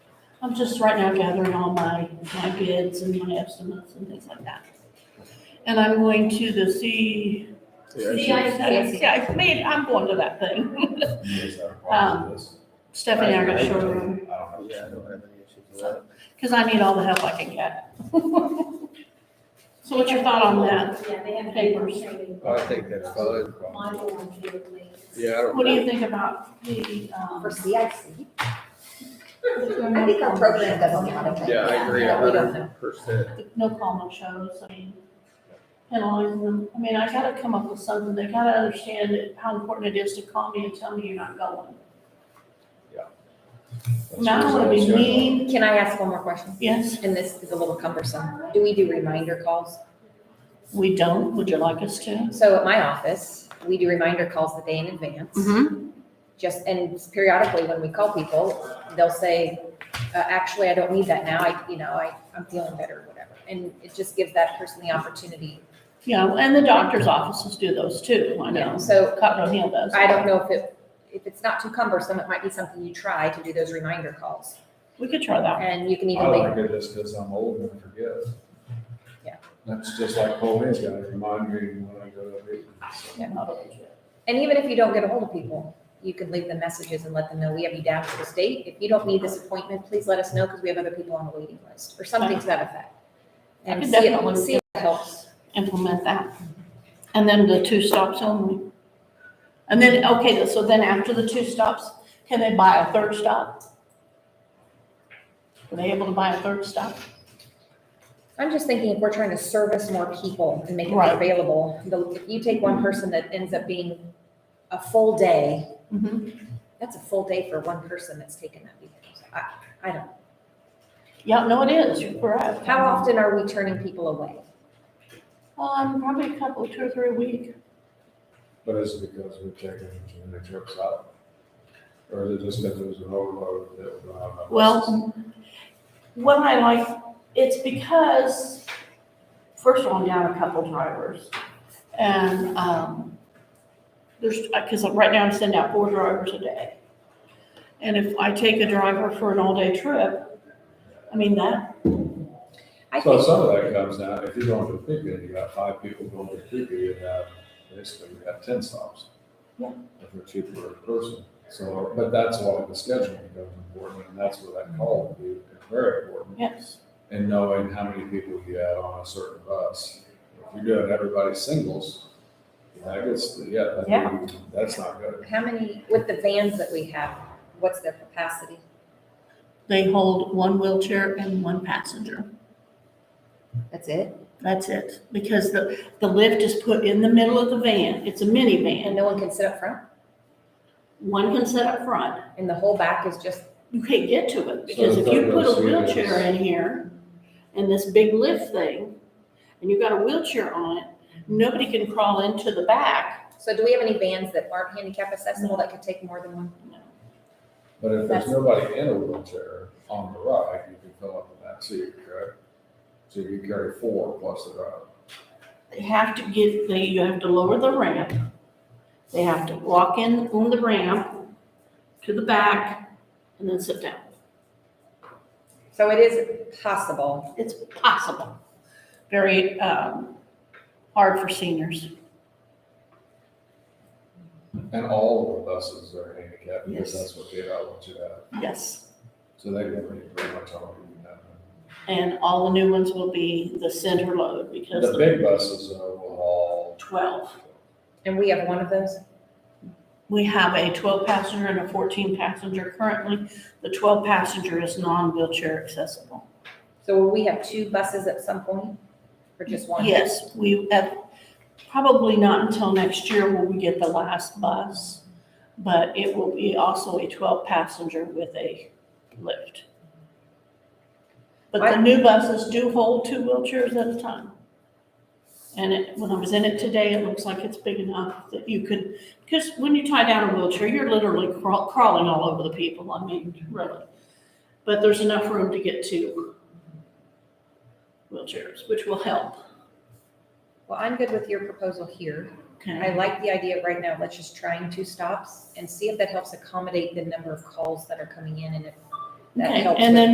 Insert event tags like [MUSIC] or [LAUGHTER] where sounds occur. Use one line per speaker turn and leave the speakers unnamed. I'm just right now gathering all my, my bids and my estimates and things like that. And I'm going to the C.
CIC.
Yeah, I mean, I'm going to that thing.
[LAUGHS]
Um, Stephanie, I got showroom,
Yeah, I don't have any issues with that.
because I need all the help I can get. So what's your thought on that?
Yeah, they have
Papers.
papers.
I think that's fine.
Module on family.
Yeah, I don't.
What do you think about the, um?
For CIC? I think our program does a lot of things.
Yeah, I agree a hundred percent.
no call, no shows, I mean, penalizing them, I mean, I gotta come up with something, they gotta understand it- how important it is to call me and tell me you're not going. Now, I don't wanna be mean,
Can I ask one more question?
yes,
And this is a little cumbersome. Do we do reminder calls?
we don't, would you like us to?
So at my office, we do reminder calls the day in advance. Just, and periodically when we call people, they'll say, uh, actually, I don't need that now. I, you know, I, I'm feeling better or whatever. And it just gives that person the opportunity.
Yeah, and the doctor's offices do those too, I know,
So
Cotton Hill does.
I don't know if it, if it's not too cumbersome, it might be something you try to do those reminder calls.
We could try that,
And you can
I
even make,
like it just because I'm old and I forget.
Yeah.
That's just like Coleman's got to remind me when I go to meetings.
yeah, not
and even if you don't get a hold of people, you can leave them messages and let them know, we have you down for this date. If you don't need this appointment, please let us know because we have other people on the waiting list or something to that effect.
I
And
could
see if,
definitely
see if it helps.
implement that. And then the two stops only. And then, okay, so then after the two stops, can they buy a third stop? Are they able to buy a third stop?
I'm just thinking if we're trying to service more people and make it
Right.
more available, the- if you take one person that ends up being a full day, that's a full day for one person that's taken that weekend. So I, I don't,
Yeah, no, it is, you're correct.
how often are we turning people away?
Um, probably a couple, two or three a week.
But is it because we're taking the trips out? Or is it just because there's an overload that we're not?
Well, what I like, it's because, first of all, I'm down a couple drivers. And, um, there's, because right now I'm sending out four drivers a day. And if I take a driver for an all-day trip, I mean, that,
I
So
think,
some of that comes down, if you're going to Topeka, you got five people going to Topeka, you have, basically, you have ten stops.
Yeah.
If they're cheaper per person, so, but that's why the scheduling becomes important, and that's where that call would be very important.
yes,
And knowing how many people you had on a certain bus. If you're doing everybody singles, I guess, yeah, that'd be-
Yeah.
that's not good.
how many, with the vans that we have, what's their capacity?
they hold one wheelchair and one passenger.
That's it?
That's it. Because the, the lift is put in the middle of the van. It's a minivan.
And no one can sit up front?
One can sit up front.
And the whole back is just,
You can't get to it,
So
because if you
it's
put a
like those
wheelchair in here and this big lift thing, and you've got a wheelchair on it, nobody can crawl into the back.
so do we have any vans that aren't handicap accessible that could take more than one?
But if there's
That's-
nobody in a wheelchair on the ride, you can fill up the back seat, correct? So you can carry four plus the driver.
They have to give, they, you have to lower the ramp. They have to walk in on the ramp to the back and then sit down.
So it is possible.
It's possible. Very, um, hard for seniors.
And all of the buses are handicapped, because
Yes.
that's what they don't want you to have.
Yes.
So they don't really pretty much all do that.
And all the new ones will be the center load because
The
the
big buses are all.
twelve.
And we have one of those?
We have a twelve passenger and a fourteen passenger currently. The twelve passenger is non-wheelchair accessible.
So will we have two buses at some point? Or just one?
Yes, we have, probably not until next year will we get the last bus, but it will be also a twelve passenger with a lift. But the new buses do hold two wheelchairs at a time. And it, when I was in it today, it looks like it's big enough that you could, because when you tie down a wheelchair, you're literally crawl- crawling all over the people, I mean, really. But there's enough room to get two wheelchairs, which will help,
Well, I'm good with your proposal here.
okay?
I like the idea of right now, let's just trying two stops and see if that helps accommodate the number of calls that are coming in and if that
Okay,
helps.
and
with-
then